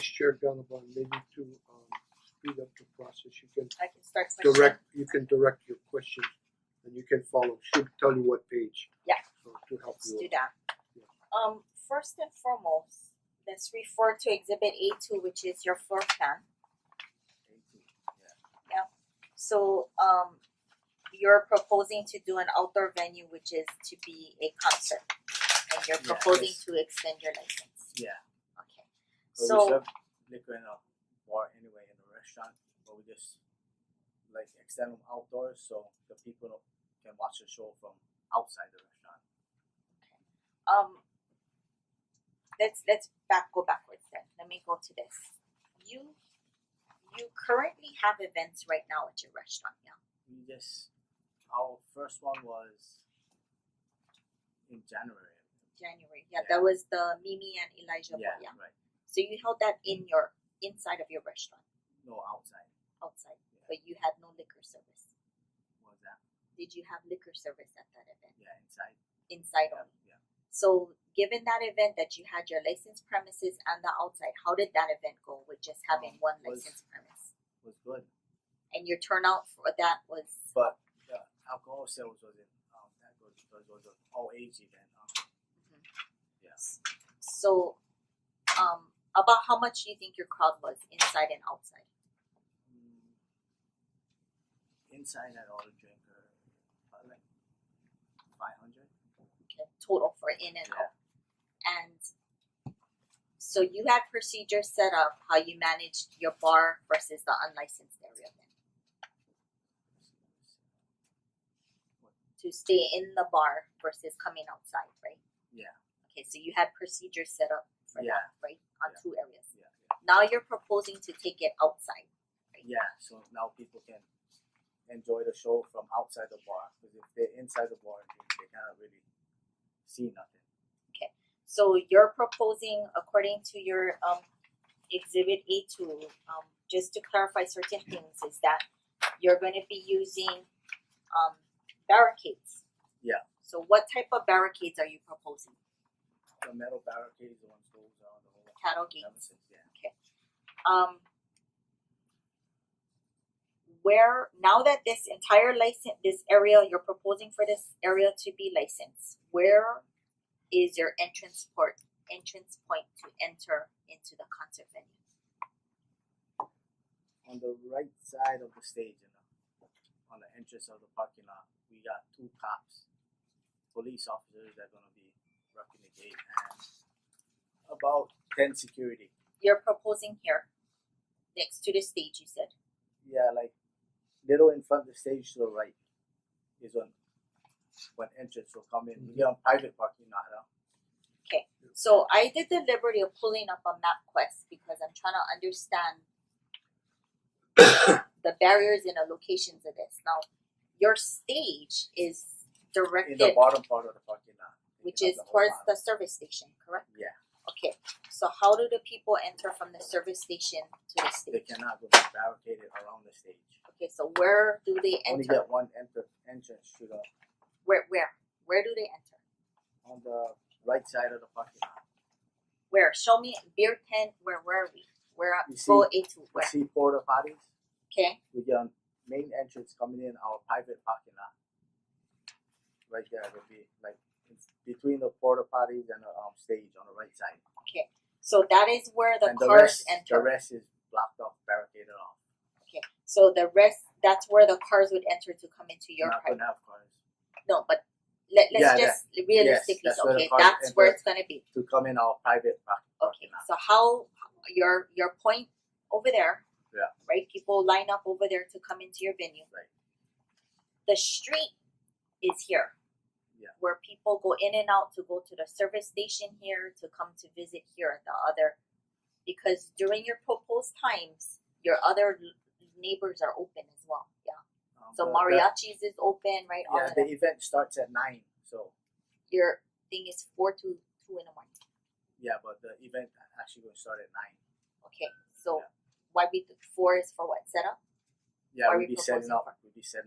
Chair Gannabon, maybe to um speed up the process, you can I can start my. direct, you can direct your questions and you can follow, should tell you what page. Yeah. So to help Let's do you. that. Um, first and foremost, let's refer to exhibit A two, which is your floor plan. So um you're proposing to do an outdoor venue which is to be a concert and you're Yeah, proposing yes. to extend your license. Yeah. Okay. But So we serve liquor in a bar anyway in a restaurant, but we just like extend them outdoors so the people can watch the show from outside the restaurant. um let's let's back go backwards then. Let me go to this. You you currently have events right now at your restaurant, yeah? We just our first one was in January. January. Yeah, that was the Mimi and Elijah Yeah, one, yeah. right. So you held that in your inside of your restaurant, No outside. outside, but you had no liquor service. What was that? Did you have liquor service at that event? Yeah, inside. Inside Yeah, only. yeah. So, given that event that you had your licensed premises and the outside, how did that event go with just having Um, one was- licensed premise? Was good. And your turnout for that was But the alcohol sales wasn't um that good because it was an all age event. Um, Mm-hmm. so. Um, about how much do you think your crowd was inside and outside? Mm, Inside I ordered drink uh, about like five hundred. Okay, total for in and Yeah. out. And so you had procedures set up how you managed your bar versus the unlicensed area then to stay in the bar versus coming outside, right? Yeah. Okay, so you had procedures set up for Yeah. that, right? On Yeah. two areas. Yeah, Now you're proposing to take it outside. yeah. So now people can enjoy the show from outside the bar because if they're inside the bar, they, they cannot really see nothing. So you're proposing, according to your um exhibit A two, um just to clarify certain things is that you're gonna be using um barricades. Yeah. So what type of barricades are you proposing? The metal barricades, the ones goes on the whole Cattle gates? ever since, yeah. um where now that this entire license this area you're proposing for this area to be licensed where is your entrance port entrance point to enter into the concert venue On the right side of the stage, you know, on the entrance of the parking lot, we got two cops, police officers that are gonna be rocking the gate, and about ten security. you're proposing here next to the stage you said yeah, like little in front of the stage to the right is when when entrance will come in. We are on private parking lot now. so i did the liberty of pulling up a map quest because i'm trying to understand the barriers and the locations of this now your stage is In directed the bottom part of the parking lot. which Taking is up whole towards lot. the service station, correct? Yeah. Okay, so how do the people enter from the service station to the they stage? cannot go back barricaded around the stage. Okay, so where do they Only enter? get one enter entrance to the Where where? Where do they enter? on the right side of the parking lot. Where? Show me beer tent, where were we? Where You go A two, You where? see porta potties? Okay, We get on main entrance coming in our private parking lot. Right there it'll be like it's between the porta potties and the um stage on the right side. so that is where the and the cars rest, enter. The rest is blocked off, barricaded off. So the rest, that's where the cars would enter to come into your Not private. gonna have cars No, but let Yeah, let's yeah. just realistically, that's where the okay, cars that's where enter. it's gonna be. to come in our private park- Okay, parking lot. so how your your point over there? Yeah. Right, people line up over there to come into your venue. Right. The street is here. Yeah. Where people go in and out to go to the service station here to come to visit here at the other, because during your proposed times, your other l- neighbors are open as well. Yeah. Um, So the- the- mariachis is open, right? All Yeah, of the that. event starts at nine, so Your thing is four to two in the morning. yeah, but the event actually gonna start at nine. Okay, so Yeah. why be four is for what setup? Yeah, Are we'll we be setting proposing up, for- we'll be setting